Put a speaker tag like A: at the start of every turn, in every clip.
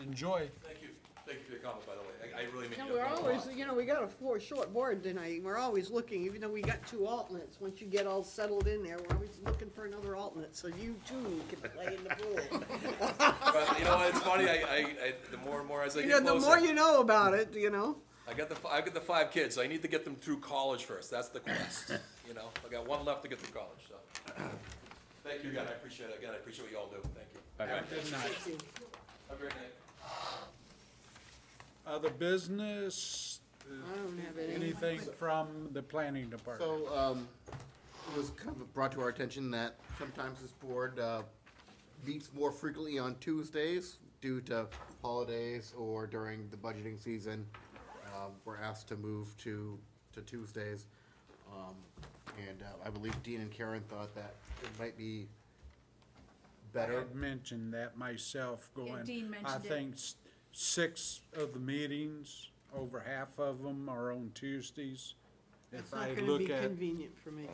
A: Enjoy.
B: Thank you, thank you for your comment, by the way, I, I really mean.
C: No, we're always, you know, we got a four short board tonight, we're always looking, even though we got two alternates, once you get all settled in there, we're always looking for another alternate, so you too can play in the pool.
B: But you know what, it's funny, I, I, I, the more and more as I
C: You know,
B: get
C: the more
B: closer,
C: you know about it, you know?
B: I got the, fi- I got the five kids, so I need to get them through college first, that's the quest, you know? I got one left to get through college, so. Thank you again, I appreciate it, again, I appreciate what you all do, thank you.
A: Good night.
B: Have a great night.
A: Other business,
C: I don't have any.
A: anything from the planning department?
D: So, um, it was kind of brought to our attention that sometimes this board, uh, meets more frequently on Tuesdays due to holidays or during the budgeting season. Um, we're asked to move to, to Tuesdays. Um, and, uh, I believe Dean and Karen thought that it might be
A: I
D: better.
A: had mentioned that myself going.
E: Dean
A: I
E: mentioned it.
A: think s- six of the meetings, over half of them are on Tuesdays.
C: It's
A: If I
C: not gonna be
A: look at,
C: convenient for me,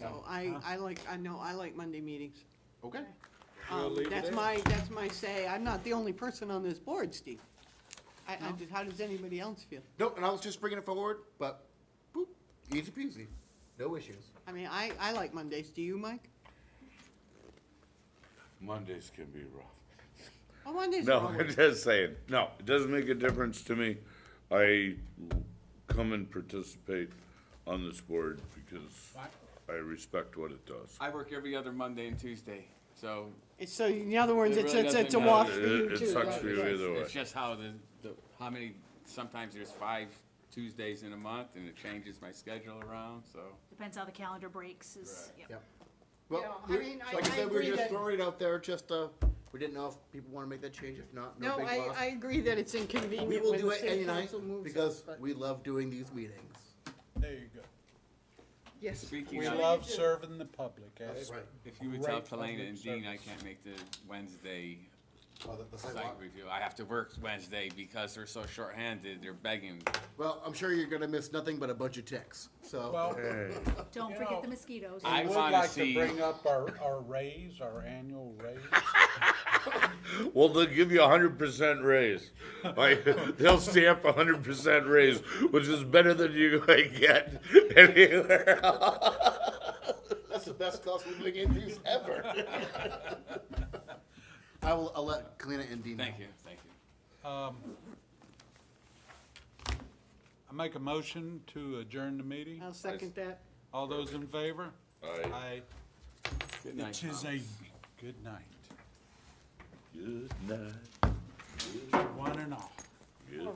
C: so I, I like, I know, I like Monday meetings.
D: Okay,
A: We'll
C: Um,
A: leave it
C: That's
A: there.
C: my, that's my say, I'm not the only person on this board, Steve. I, I, just- how does anybody else feel?
D: no, and I was just bringing it forward, but, boop, easy peasy, no issues.
C: I mean, I, I like Mondays, do you, Mike?
F: Mondays can be rough.
C: Oh, Mondays are
F: No,
C: always.
F: I'm just saying, no, it doesn't make a difference to me. I come and participate on this board because I respect what it does.
G: I work every other Monday and Tuesday, so
C: It's So, in other words,
G: It
C: it's,
G: really
C: it's, it's a
G: doesn't
C: wash
G: matter.
C: for you
F: It,
C: too.
F: it sucks
C: right?
F: for you either way.
G: it's just how the, the, how many, sometimes there's five Tuesdays in a month, and it changes my schedule around, so.
E: Depends how the calendar breaks is, yep.
D: Yep. Well,
C: Yeah, I
D: we-
C: mean, I-
D: like I
C: I
D: said, we
C: agree
D: were just
C: that-
D: throwing it out there, just, uh, we didn't know if people wanna make that change, if not, no
C: No,
D: big
C: I,
D: loss.
C: I agree that it's inconvenient
D: We will
C: when
D: do
C: the
D: it
C: city
D: any night,
C: council moves it,
D: because
C: but-
D: we love doing these meetings.
A: there you go.
C: Yes.
G: Speaking
A: We
G: of,
A: love serving the public, eh? as
D: Right.
G: if you would tell
A: great public
G: Polina and Dean I
A: service.
G: can't make the Wednesday
D: Oh, the- the
G: site
D: sidewalk.
G: review, I have to work Wednesday because they're so shorthanded, they're begging.
D: Well, I'm sure you're gonna miss nothing but a bunch of ticks, so,
A: well.
E: Don't
A: You know,
E: forget the mosquitoes.
G: I-
A: I would
G: wanna
A: like to
G: see-
A: bring up our, our raise, our annual raise.
F: Well, they'll give you a hundred percent raise. Like, they'll stamp a hundred percent raise, which is better than you're gonna get anywhere else.
D: that's the best cost of living increase ever. I will, I'll let Kalina and Dean know.
G: Thank you, thank you.
A: I make a motion to adjourn the meeting.
C: I'll second that.
A: All those in favor? Aye.
G: Good night,
A: It is
G: Tom.
A: a good night.
F: Good night.